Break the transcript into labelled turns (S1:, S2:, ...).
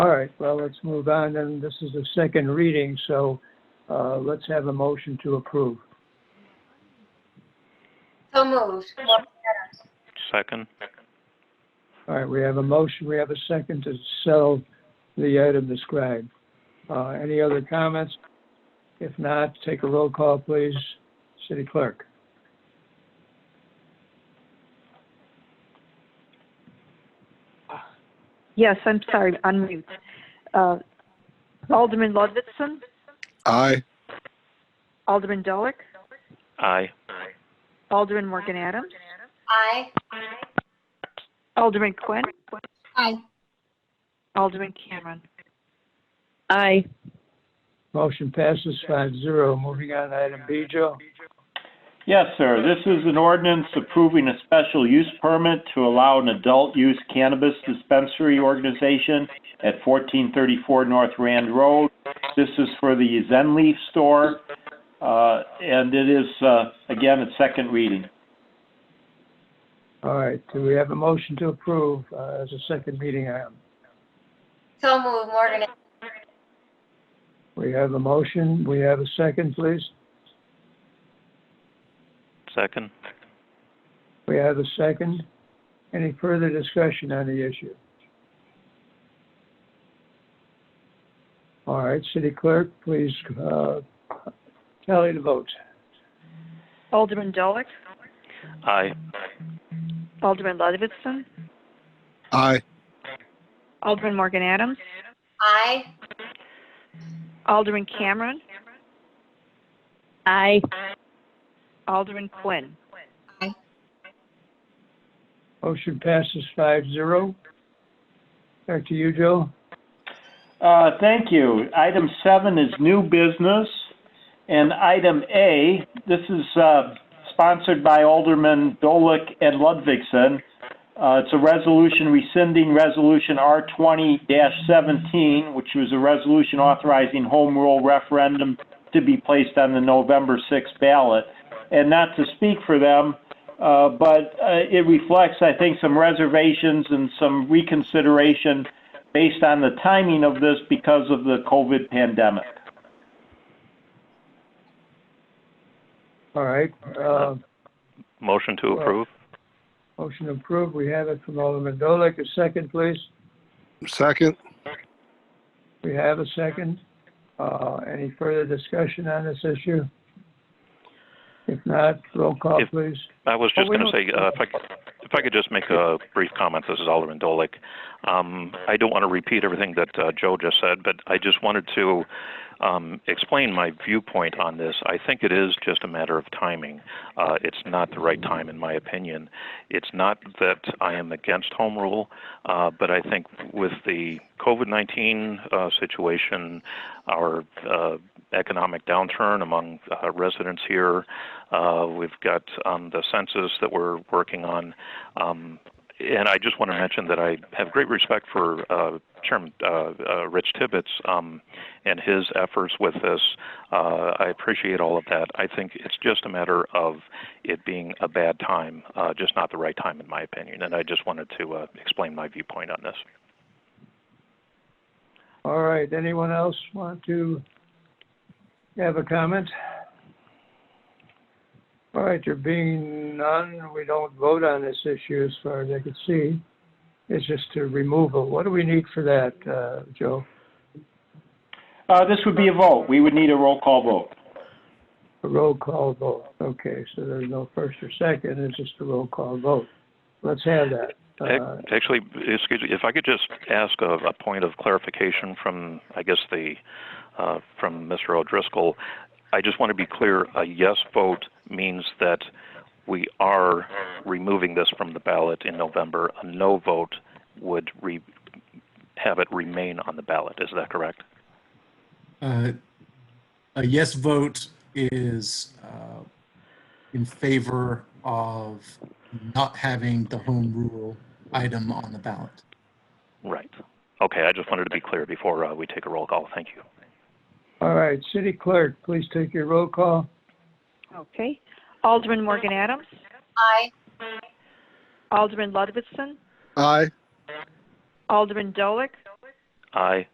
S1: All right, well, let's move on, and this is the second reading, so uh, let's have a motion to approve.
S2: So moved.
S3: Second?
S1: All right, we have a motion, we have a second to sell the item described. Uh, Any other comments? If not, take a roll call, please. City Clerk?
S4: Yes, I'm sorry, unmute. Uh, Alderman Ludvixson,
S5: Aye.
S4: Alderman Dolick,
S3: Aye.
S4: Alderman Morgan Adams,
S2: Aye.
S4: Alderman Quinn,
S2: Aye.
S4: Alderman Cameron.
S6: Aye.
S1: Motion passes five zero. Moving on to item B, Joe.
S7: Yes, sir. This is an ordinance approving a special use permit to allow an adult-use cannabis dispensary organization at 1434 North Rand Road. This is for the Zen Leaf store, uh, and it is, uh, again, its second reading.
S1: All right, do we have a motion to approve uh, as a second reading item?
S2: So moved, Morgan.
S1: We have a motion, we have a second, please.
S3: Second?
S1: We have a second. Any further discussion on the issue? All right, City Clerk, please uh, tally the votes.
S4: Alderman Dolick,
S3: Aye.
S4: Alderman Ludvixson,
S5: Aye.
S4: Alderman Morgan Adams,
S2: Aye.
S4: Alderman Cameron,
S6: Aye.
S4: Alderman Quinn.
S1: Motion passes five zero. Back to you, Joe.
S7: Uh, Thank you. Item seven is new business, and item A, this is uh, sponsored by Alderman Dolick and Ludvixson. Uh, It's a resolution rescinding Resolution R20-17, which was a resolution authorizing home rule referendum to be placed on the November 6th ballot. And not to speak for them, uh, but uh, it reflects, I think, some reservations and some reconsideration based on the timing of this because of the COVID pandemic.
S1: All right, uh,
S3: Motion to approve?
S1: motion approved. We have it from Alderman Dolick. A second, please.
S5: Second.
S1: We have a second. Uh, Any further discussion on this issue? If not, roll call,
S3: If-
S1: please.
S3: I was
S1: Oh,
S3: just
S1: we
S3: going to
S1: don't-
S3: say, uh, if I, could- if I could just make a brief comment, this is Alderman Dolick. Um, I don't want to repeat everything that uh, Joe just said, but I just wanted to um, explain my viewpoint on this. I think it is just a matter of timing. Uh, it's not the right time, in my opinion. It's not that I am against home rule, uh, but I think with the COVID 19 uh, situation, our uh, economic downturn among uh, residents here, uh, we've got um, the census that we're working on. Um, and I just want to mention that I have great respect for uh, Chairman uh, uh, Rich Tibbetts um, and his efforts with this. Uh, I appreciate all of that. I think it's just a matter of it being a bad time, uh, just not the right time, in my opinion. And I just wanted to uh, explain my viewpoint on this.
S1: All right, anyone else want to have a comment? All right, there being none, we don't vote on this issue as far as I can see. It's just a removal. What do we need for that, uh, Joe?
S7: Uh, this would be a vote. We would need a roll call vote.
S1: A roll call vote. Okay, so there's no first or second, it's just a roll call vote. Let's have that. Uh,
S3: Ac- Actually, excuse me, if I could just ask a, a point of clarification from, I guess, the, uh, from Mr. O'Driscoll. I just want to be clear, a yes vote means that we are removing this from the ballot in November. A no vote would re, have it remain on the ballot. Is that correct?
S8: Uh, A yes vote is uh, in favor of not having the home rule item on the ballot.
S3: Right. Okay, I just wanted to be clear before, uh, we take a roll call. Thank you.
S1: All right, city clerk, please take your roll call.
S4: Okay. Alderman Morgan Adams,
S2: Aye.
S4: Alderman Ludvixson,
S5: Aye.
S4: Alderman Dolick,
S3: Aye.